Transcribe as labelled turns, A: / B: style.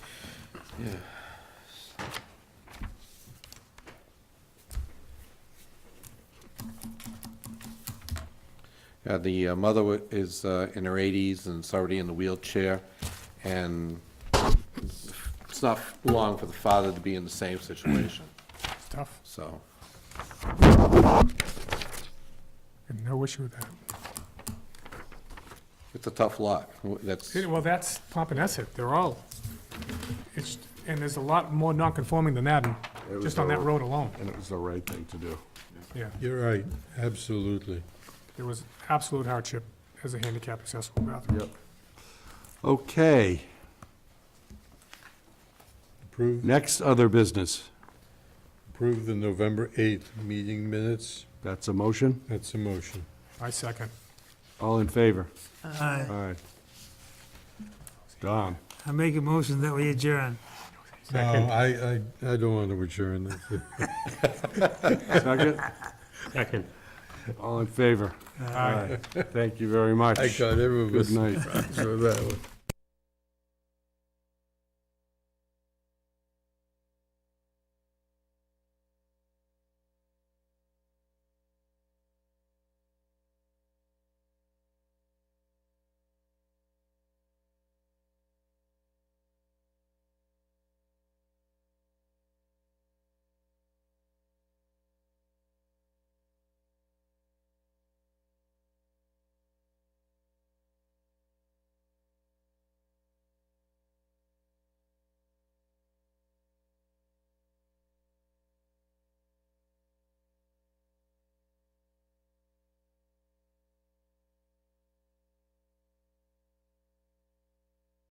A: Yeah, the uh, mother wa- is uh, in her eighties and is already in the wheelchair, and it's not long for the father to be in the same situation,
B: It's tough,
A: so.
B: and no issue with that.
A: It's a tough lot, that's,
B: Yeah, Well, that's Pompanesett, they're all, it's, and there's a lot more non-conforming than that,
C: It
B: and
C: was
B: just on
C: the-
B: that road alone,
C: And it was the right thing to do.
B: yeah.
D: You're right, absolutely.
B: There was absolute hardship as a handicap accessible bathroom.
C: Yep. Okay,
D: Approve,
C: next other business.
D: approve the November 8th meeting minutes.
C: That's a motion?
D: That's a motion.
B: I second.
C: All in favor?
E: Aye.
C: All right. Don,
E: I make a motion that we adjourn.
D: No, I, I, I don't want to adjourn. this.
C: second?
F: Second.
C: All in favor?
B: Aye.
C: Thank you very much.
D: I got everyone
C: Good night.
D: So that one.